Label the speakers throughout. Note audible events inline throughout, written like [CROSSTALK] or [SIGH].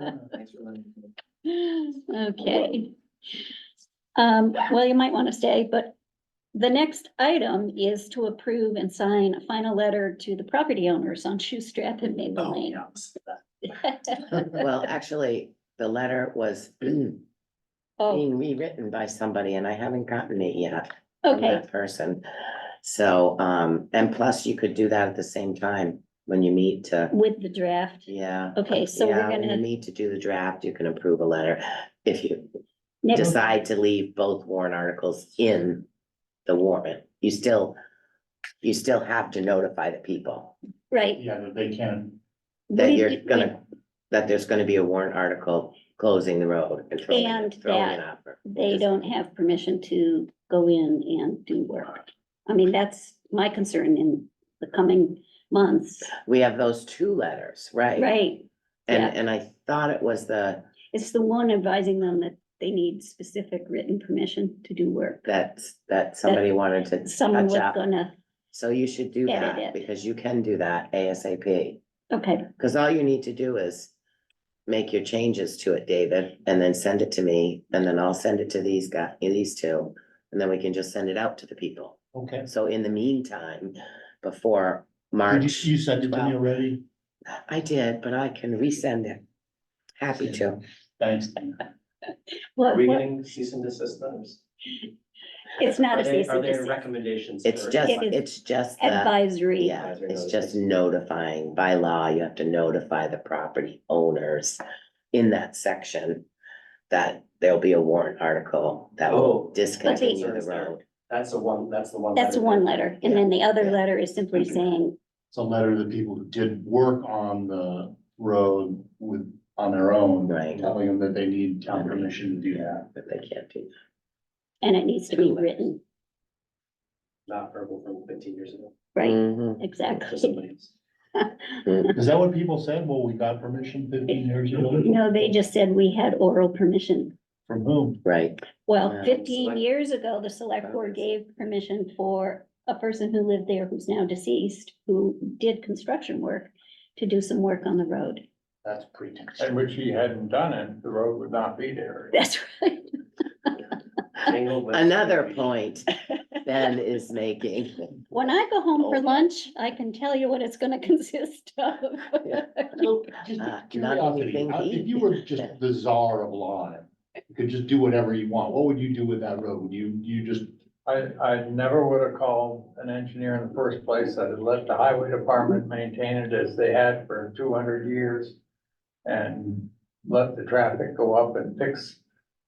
Speaker 1: Oh,
Speaker 2: Oh,
Speaker 1: Okay. Um, well, you might want to stay, but the next item is to approve and sign a final letter to the property owners on Shoestrap and Maple
Speaker 3: Oh,
Speaker 1: Lane.
Speaker 3: yeah.
Speaker 2: Well, actually, the letter was [CLEARS THROAT] being
Speaker 1: [LAUGHS] Oh,
Speaker 2: rewritten by somebody and I haven't gotten it yet. from
Speaker 1: okay,
Speaker 2: that Person. So, um, and plus you could do that at the same time when you meet to,
Speaker 1: with the draft.
Speaker 2: yeah.
Speaker 1: Okay, so we're
Speaker 2: Yeah, when you
Speaker 1: gonna,
Speaker 2: need to do the draft, you can approve a letter. If you
Speaker 1: next,
Speaker 2: decide to leave both warrant articles in the warrant, you still, you still have to notify the people
Speaker 1: right.
Speaker 3: Yeah, that they can,
Speaker 2: that
Speaker 1: we-
Speaker 2: you're
Speaker 1: we-
Speaker 2: gonna, that there's gonna be a warrant article closing the road and throwing
Speaker 1: And
Speaker 2: it, throwing
Speaker 1: that
Speaker 2: it up. or-
Speaker 1: They don't have permission to go in and do work. I mean, that's my concern in the coming months,
Speaker 2: We have those two letters, right?
Speaker 1: right? yeah.
Speaker 2: And, and I thought it was the,
Speaker 1: It's the one advising them that they need specific written permission to do work.
Speaker 2: that, that somebody wanted to
Speaker 1: Someone
Speaker 2: touch
Speaker 1: was
Speaker 2: up.
Speaker 1: gonna,
Speaker 2: So you should do
Speaker 1: Edit it.
Speaker 2: that because you can do that ASAP.
Speaker 1: okay,
Speaker 2: Cause all you need to do is make your changes to it, David, and then send it to me, and then I'll send it to these guys, these two. And then we can just send it out to the people.
Speaker 3: okay.
Speaker 2: So in the meantime, before
Speaker 3: You,
Speaker 2: March,
Speaker 3: you sent it to me already?
Speaker 2: I did, but I can resend it. Happy to.
Speaker 3: Thanks.
Speaker 4: Are we
Speaker 1: well,
Speaker 4: getting cease and desist letters?
Speaker 1: it's not
Speaker 4: Are
Speaker 1: a
Speaker 4: they-
Speaker 1: cease and
Speaker 4: Are there
Speaker 1: desist,
Speaker 4: recommendations?
Speaker 2: It's
Speaker 4: or-
Speaker 2: just,
Speaker 1: It is
Speaker 2: it's just that,
Speaker 1: advisory.
Speaker 2: yeah, it's just notifying. By law, you have to notify the property owners in that section that there'll be a warrant article that will
Speaker 4: Oh.
Speaker 2: discontinue the
Speaker 4: Concerns there.
Speaker 2: road.
Speaker 4: That's the one, that's the one.
Speaker 1: That's one letter, and then the other
Speaker 2: Yeah.
Speaker 1: letter is simply
Speaker 4: Mm-hmm.
Speaker 1: saying,
Speaker 3: It's a letter to the people who did work on the road with, on their own.
Speaker 2: Right.
Speaker 3: Telling them that they need town permission to do that.
Speaker 2: But they can't do
Speaker 1: and it needs to be written,
Speaker 4: Not verbal from fifteen years ago.
Speaker 2: that.
Speaker 1: right?
Speaker 2: Mhm.
Speaker 4: to
Speaker 1: Exactly.
Speaker 4: somebody else.
Speaker 3: [LAUGHS] Is that what people said? Well, we got permission fifteen years ago?
Speaker 1: No, they just said we had oral permission.
Speaker 3: From whom?
Speaker 2: Right,
Speaker 1: Well,
Speaker 2: Yeah.
Speaker 1: fifteen
Speaker 4: Select-
Speaker 1: years ago, the select board gave permission for a person who lived there who's now deceased, who did construction work, to do some work on the road. [LAUGHS]
Speaker 3: That's pretext.
Speaker 5: And which he hadn't done it, the road would not be there.
Speaker 1: That's right.
Speaker 2: [LAUGHS]
Speaker 4: Tangled web.
Speaker 3: [LAUGHS]
Speaker 2: another
Speaker 4: [LAUGHS]
Speaker 2: point Ben is making.
Speaker 1: When I go home
Speaker 5: Oh.
Speaker 1: for lunch, I can tell you what it's gonna [LAUGHS] consist of.
Speaker 2: Yeah.
Speaker 3: So, just
Speaker 2: Uh, not
Speaker 3: curiosity,
Speaker 2: anything
Speaker 3: uh,
Speaker 2: he-
Speaker 3: if you were just the czar of law, you could just do whatever you want, what would you do with that road? Would you, you just,
Speaker 5: I, I never would have called an engineer in the first place. I'd have let the highway department maintain it as they had for two hundred years. And let the traffic go up and fix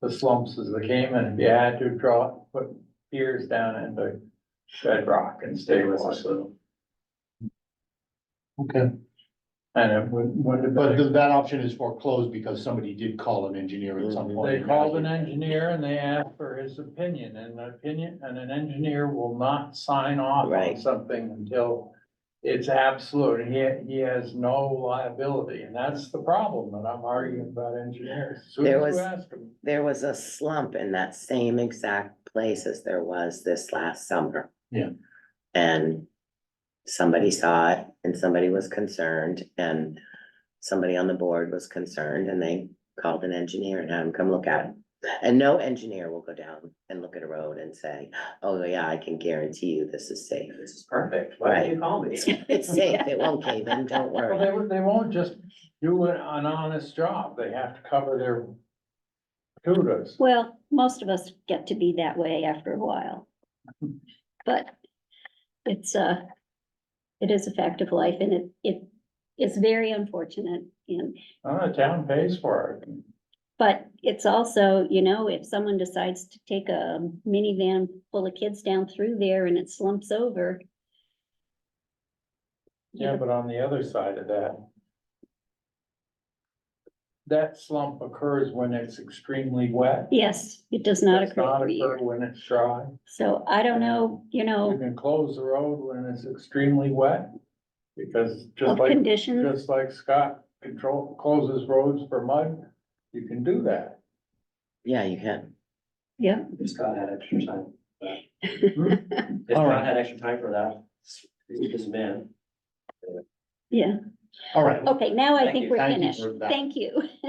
Speaker 5: the slumps as they came, and if you had to draw, put piers down into bedrock and stay with us.
Speaker 3: okay,
Speaker 5: And it would, would have
Speaker 3: but
Speaker 5: been.
Speaker 3: th- that option is foreclosed because somebody did call an engineer at some point.
Speaker 5: They called an engineer and they asked for his opinion, and an opinion, and an engineer will not sign off
Speaker 2: Right.
Speaker 5: on something until it's absolute, and he, he has no liability, and that's the problem that I'm arguing about engineers. As Soon
Speaker 2: There
Speaker 5: as
Speaker 2: was-
Speaker 5: you ask them,
Speaker 2: There was a slump in that same exact place as there was this last summer.
Speaker 3: Yeah.
Speaker 2: And somebody saw it and somebody was concerned and somebody on the board was concerned and they called an engineer and had him come look at it. And no engineer will go down and look at a road and say, oh yeah, I can guarantee you this is safe.
Speaker 4: This is perfect. Why did you call me?
Speaker 2: It's safe, it won't cave in, don't
Speaker 5: well, [LAUGHS]
Speaker 2: worry.
Speaker 5: they, won't- they won't just do an an honest job, they have to cover their kudos.
Speaker 1: Well, most of us get to be that way after a while. But it's uh it is a fact of life and it, it is very unfortunate and,
Speaker 5: Uh, the town pays for it.
Speaker 1: but it's also, you know, if someone decides to take a minivan full of kids down through there and it slumps over.
Speaker 5: Yeah, but on the other side of that. That slump occurs when it's extremely wet.
Speaker 1: Yes, it does not
Speaker 5: Does
Speaker 1: occur every year.
Speaker 5: occur When it's dry.
Speaker 1: So I don't know, you
Speaker 5: You
Speaker 1: know,
Speaker 5: can close the road when it's extremely wet. Because
Speaker 1: of
Speaker 5: just like,
Speaker 1: conditions,
Speaker 5: just like Scott control, closes roads for mud, you can do that.
Speaker 2: Yeah, you can.
Speaker 1: yeah.
Speaker 4: If Scott had extra time.
Speaker 1: [LAUGHS]
Speaker 4: If
Speaker 3: All right.
Speaker 4: Scott had extra time for that, he's just a man.
Speaker 1: Yeah,
Speaker 3: All right,
Speaker 1: okay, now I
Speaker 4: Thank
Speaker 1: think
Speaker 4: you.
Speaker 1: we're
Speaker 3: Thank you
Speaker 1: finished.
Speaker 3: for that.
Speaker 1: Thank you. [LAUGHS]